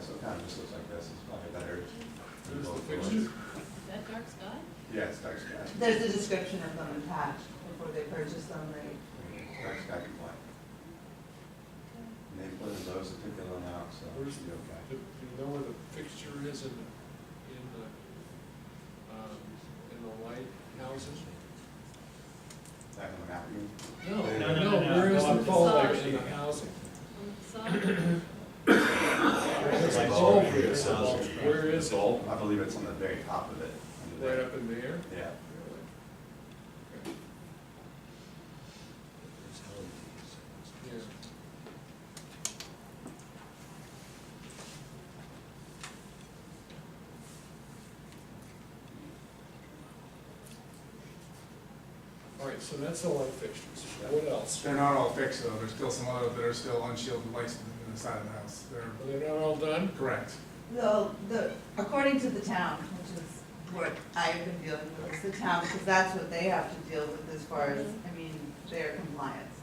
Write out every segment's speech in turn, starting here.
so it kind of just looks like this, it's probably better. There's the fixture. Is that dark sky? Yeah, it's dark sky, There's a description of them attached before they purchased them, right? dark sky compliant. And they put in those, I think they went out, so it should be okay. Do do you know where the fixture is in, the- in the, um, in the lighthouses? Back on the map again. No, no, no, Where is no, the I'm bulb sorry. in the housing? On the side? There's a Like, oh, bulb it's here. a bulb. Where is it? Right I believe it's on the very top of it. under there. up in the air? Yeah. Really? Okay. Yeah. All right, so that's the light fixtures. What else? They're not all fixed though, there's still some other that are still unshielded lights in the side of the house, Are they're they not all done? correct. Though, the, according to the town, which is what I've been dealing with, is the town, because that's what they have to deal with as far as, I mean, their compliance.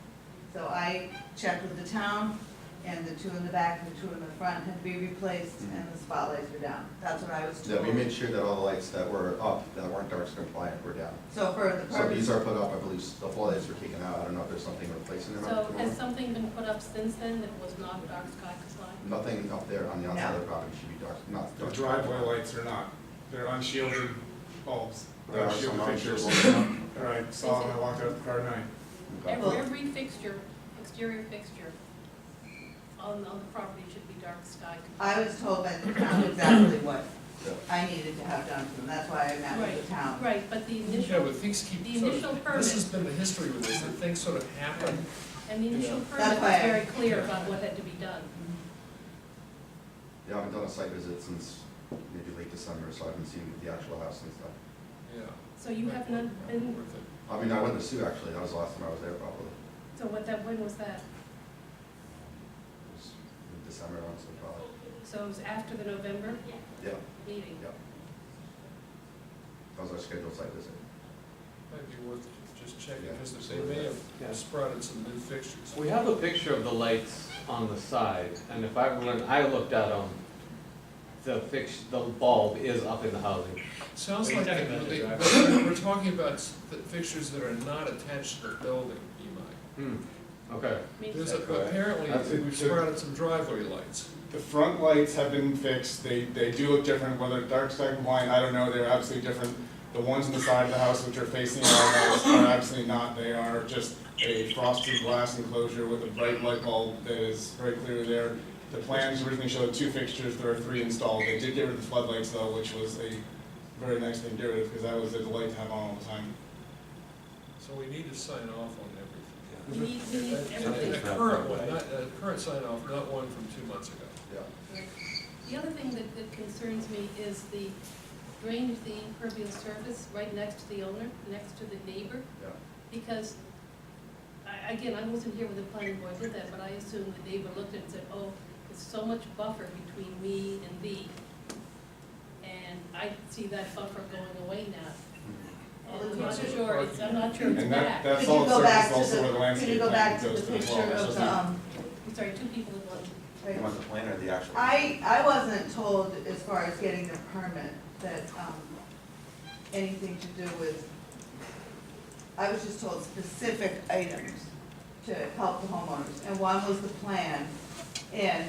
So I checked with the town, and the two in the back and the two in the front had to be replaced, and the spotlights were down. That's what I was Yeah, told. we made sure that all the lights that were up, that weren't dark sky compliant, were down. So for the So these purpose, are put up, I believe, the floodlights were taken out, I don't know if there's something replacing them. So has something been put up since then that was not dark sky compliant? Nothing up there on the outside of the property should be dark, not. The dark. driveway lights are not, they're unshielded bulbs, There they're are some unshielded fixtures. unshielded ones. All right, saw them, I walked out the car tonight. Okay. Every- Every fixture, exterior fixture on, on the property should be dark sky I compliant. was told by the town exactly what Yeah. I needed to have done, and that's why I met with the town. Right, but the Yeah, initial, but things keep the sort initial of, permit- this has been the history with this, that things sort of happen. and the initial Yeah. permit That's was why I- very clear about what had to be done. Yeah, I haven't done a site visit since maybe late December, so I haven't seen the actual house and stuff. Yeah. So you have not been, Worth it. I mean, I went to Sue actually, that was the last time I was there probably. so what that, when was that? It was in December, once or probably. So it was after the November Yeah, meeting? yeah. That was our scheduled site visit. Might be worth just checking, Yeah. because they may Yeah. have sprouted some new fixtures. We have a picture of the lights on the side, and if I, when I looked at them, the fix, the bulb is up in the housing. Sounds Are you like, talking that- about they- the we're we're talking about s- the fixtures that are not attached to the building, Imai. Hmm, okay. Means- There's that correct? That's apparently, it, we've too. sprouted some driveway lights. The front lights have been fixed, they, they do look different, whether dark sky compliant, I don't know, they're absolutely different. The ones on the side of the house which are facing our house are absolutely not, they are just a frosted glass enclosure with a bright light bulb that is very clearly there. The plans originally showed two fixtures, there are three installed, they did get rid of the floodlights though, which was a very nice thing to get rid of, because that was a delight to have on all the time. So we need to sign off on everything. We need, we need And everything. A current one, not, a current sign off, not one from two months ago. Yeah. The other thing that, that concerns me is the drainage, the impervious surface right next to the owner, next to the neighbor, Yeah. because, I, again, I wasn't here when the planning board did that, but I assume the neighbor looked at it and said, oh, there's so much buffer between me and thee. And I see that buffer going away now. And I'm not sure, it's, I'm not sure it's And that, back. that Could solid you go surface back is to also the- where the Could you landscape go back plan to goes the to as well. picture That's of just the, not- um, I'm sorry, two people in one. You like- want the plan or the actual? I, I wasn't told as far as getting the permit that, um, anything to do with, I was just told specific items to help the homeowners, and one was the plan. And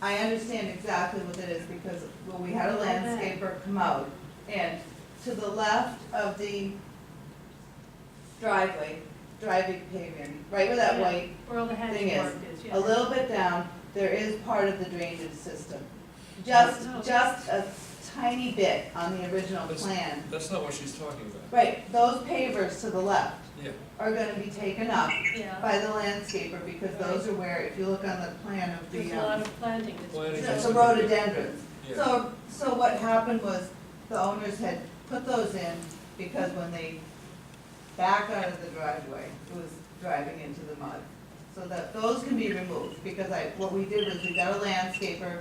I understand exactly what that is, because, well, we had a landscaper come out, and to the left of the driveway, driving pavement, right where that white Where all the Thing hatch is, mark is, yeah. a little bit down, there is part of the drainage system. Just, just a tiny bit on the original plan. That's not what she's talking about. Right, those pavers to the left Yeah, are gonna be taken up Yeah, by the landscaper, because those are where, if you look on the plan of there's the, a lot um, of planting that's. Planting the is- the rhododendrons. yeah. So, so what happened was, the owners had put those in, because when they back out of the driveway, it was driving into the mud. So that, those can be removed, because I, what we did was, we got a landscaper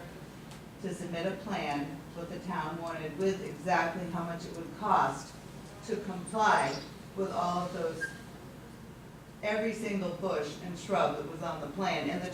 to submit a plan, what the town wanted, with exactly how much it would cost to comply with all of those, every single bush and shrub that was on the plan, and the